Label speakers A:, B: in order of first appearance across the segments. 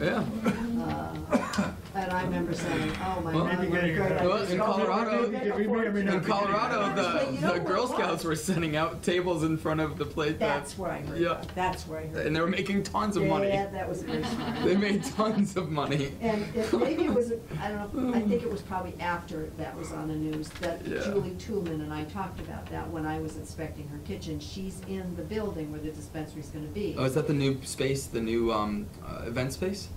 A: Yeah.
B: Uh, And I remember saying, oh, my
A: Well-
B: God, what a great
A: Well, in
B: idea.
A: Colorado, in Colorado,
C: But
A: the,
C: you know
A: the
C: what
A: Girl
C: it was?
A: Scouts were sending out tables in front of the plate. that-
C: That's where I heard
A: Yeah.
C: that, that's where I heard
A: And they were making tons of money.
B: Yeah, that was very smart.
A: They made tons of money.
B: And it- maybe it was,
D: Hmm.
B: I don't know, I think it was probably after that was on the news, that
A: Yeah.
B: Julie Toolman and I talked about that when I was inspecting her kitchen. She's in the building where the dispensary's gonna be.
A: Oh, is that the new space, the new um, uh, event space?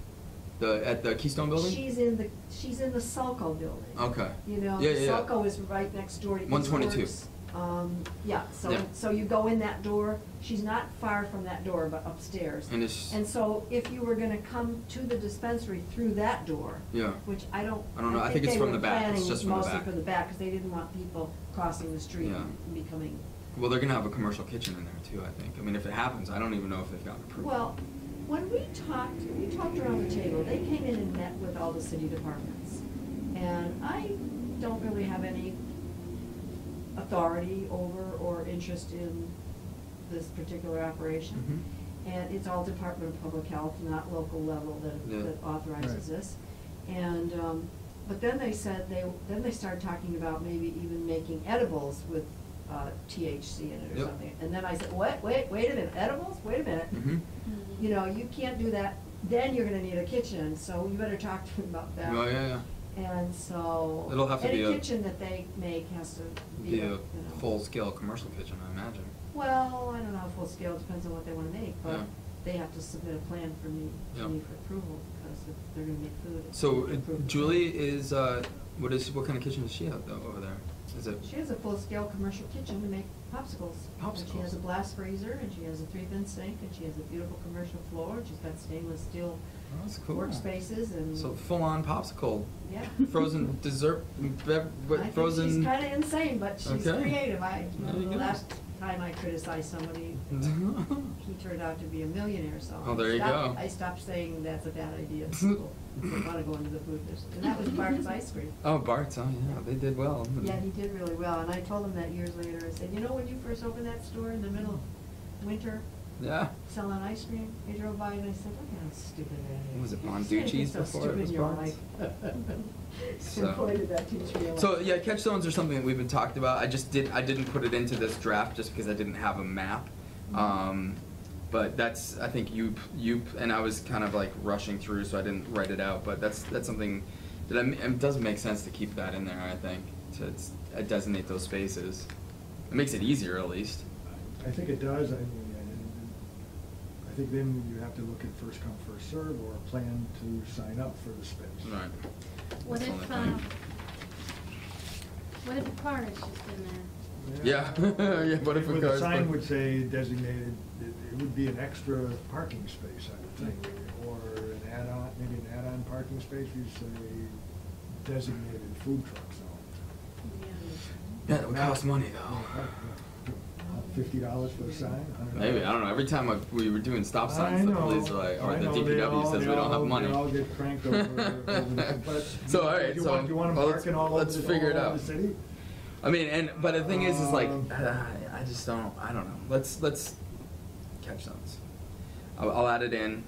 A: The at the Keystone Building?
B: She's in the, she's in the Sulco building.
A: Okay.
B: You know,
A: Yeah, yeah, yeah.
B: Sulco is right next door to East
A: 122.
B: Works. Um, yeah, so,
A: Yeah.
B: so you go in that door, she's not far from that door, but upstairs.
A: And it's-
B: And so if you were gonna come to the dispensary through that door.
A: Yeah.
B: Which I don't.
A: I don't know. I think it's
B: they
A: from
B: were
A: the back. It's
B: planning
A: just from the back.
B: Mostly for the back, because they didn't want people crossing the street
A: Yeah.
B: and becoming,
A: Well, they're gonna have a commercial kitchen in there too. I think. I mean, if it happens, I don't even know if they've gotten approved.
B: well, when we talked, we talked around the table, they came in and met with all the city departments. And I don't really have any authority over or interest in this particular operation.
A: Mm-hmm.
B: And it's all Department of Public Health, not local level
A: Yeah.
B: that, that authorizes
E: Right.
B: this. And, um, but then they said, they, then they started talking about maybe even making edibles with uh, THC in it or
A: Yep.
B: something. And then I said, what, wait, wait a minute, edibles, wait a minute.
A: Mhm.
B: You know, you can't do that, then you're gonna need a kitchen, so you better talk to them about that.
A: Oh yeah, yeah.
B: And so.
A: It'll have to be a-
B: Any kitchen that they make has to be,
A: Be
B: a, you
A: a
B: know.
A: uh, full-scale commercial kitchen, I imagine.
B: Well, I don't know, full scale, depends on what they wanna make, but
A: Yeah.
B: they have to submit a plan for me,
A: Yeah.
B: to me for approval, because if they're gonna make food. it's
A: So
B: gonna be
A: uh,
B: approved.
A: Julie is uh, what is what kind of kitchen does she have though over there? Is it?
B: She has a full-scale commercial kitchen to make popsicles. And she has a
A: Popsicles.
B: blast freezer, and she has a three-thin sink, and she has a beautiful commercial floor, and she's got stainless steel
A: Oh, that's cool.
B: workspaces and.
A: So full-on popsicle,
B: Yeah.
A: frozen dessert, bev-
B: I
A: what,
B: think
A: frozen.
B: She's kinda insane, but she's
A: Okay.
B: creative. I,
A: There you
B: the
A: go.
B: last time I criticized somebody, he turned out to be a millionaire, so.
A: Oh,
B: I
A: there you
B: stopped-
A: go.
B: I stopped saying that's a bad idea. People don't wanna go into the food business. And that was Bart's Ice Cream.
A: Oh, Bart's, oh yeah, they did well.
B: Yeah, he did really well, and I told him that years later, I said, you know, when you first opened that store in the middle of winter,
A: Yeah.
B: selling ice cream, I drove by and I said, look how stupid that is.
A: Was it
B: You can't be
A: Bonducci's
B: so
A: before it
B: stupid
A: was
B: in your
A: Bonds?
B: life."
A: So-
B: And boy, did that teach me a lot.
A: So yeah, catch zones are something that we've been talked about. I just did I didn't put it into this draft just because I didn't have a map. Um, but that's I think you you and I was kind of like rushing through, so I didn't write it out. But that's that's something that I, m- it doesn't make sense to keep that in there. I think to s- uh, designate those spaces. It makes it easier at least.
E: I think it does, I mean, I- I think then you have to look at first come, first serve, or a plan to sign up for the space.
A: Right.
D: What
A: That's the
D: if,
A: only
D: um,
A: thing.
D: what if a car is just in there?
A: Yeah. Yeah, what if a
E: Well, the
A: car's
E: sign
A: parked-
E: would say designated, it it would be an extra parking space, I would think, or an add-on, maybe an add-on parking space, you say designated food truck zone.
A: Yeah, it would cost money
E: Fifty dollars for the sign, $100.
A: Oh. Maybe I don't know. Every time I, we were doing stop signs,
E: I
A: the
E: know,
A: police are like, or
E: I
A: the
E: know, they
A: DPW
E: all-
A: says
E: they
A: we don't have
E: all-
A: money.
E: They all get cranked over, over the- but.
A: so all right,
E: you
A: so
E: want- You want them
A: well, let's-
E: parking all over
A: let's
E: the,
A: figure it
E: all over
A: out.
E: the city?
A: I mean, and but the thing is, is like,
E: Um,
A: uh, I just don't. I don't know. Let's let's catch those. I'll, I'll add it in,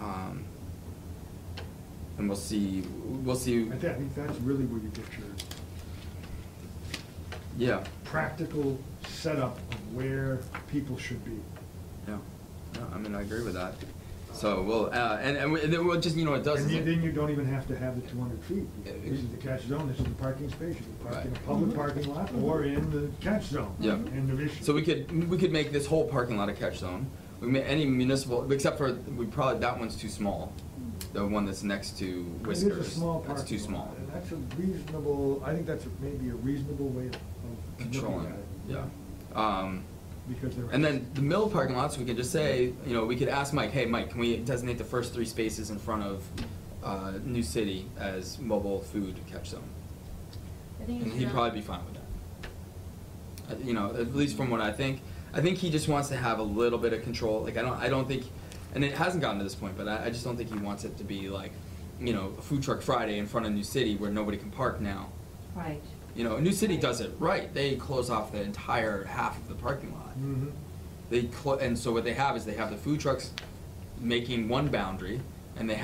A: um, and we'll see. We'll see.
E: I think, I think that's really where you get your
A: Yeah,
E: practical setup of where people should be.
A: yeah. No, I mean, I agree with that. So we'll uh, and and, we, and then we'll just you know what it does.
E: And
A: is
E: you-
A: it-
E: then you don't even have to have the two hundred feet.
A: Yeah,
E: This is the catch zone, this is the parking space, you can park in a
A: Right.
E: public parking lot or in the catch zone.
A: Yeah.
E: End of issue.
A: So we could, we could make this whole parking lot a catch zone. We may, any municipal, except for, we probably, that one's too small. The one that's next to Whiskers.
E: It is a small parking lot.
A: That's too small.
E: and That's a reasonable, I think that's a- maybe a reasonable way of of
A: Controlling,
E: looking
A: it,
E: at it.
A: yeah. Um,
E: Because there.
A: and then the mill parking lots, we could just say, you know, we could ask Mike, hey, Mike, can we designate the first three spaces in front of, uh, New City as mobile food catch zone?
D: I think
A: And
D: it's
A: he'd
D: not-
A: probably be fine with that. Uh, You know, at least from what I think, I think he just wants to have a little bit of control. Like I don't, I don't think, and it hasn't gotten to this point, but I, I just don't think he wants it to be like, you know, a food truck Friday in front of New City where nobody can park now.
B: Right.
A: You know, New City does it right. They close off the entire half of the parking lot.
E: Mhm.
A: They clo- and so what they have is they have the food trucks making one boundary, and they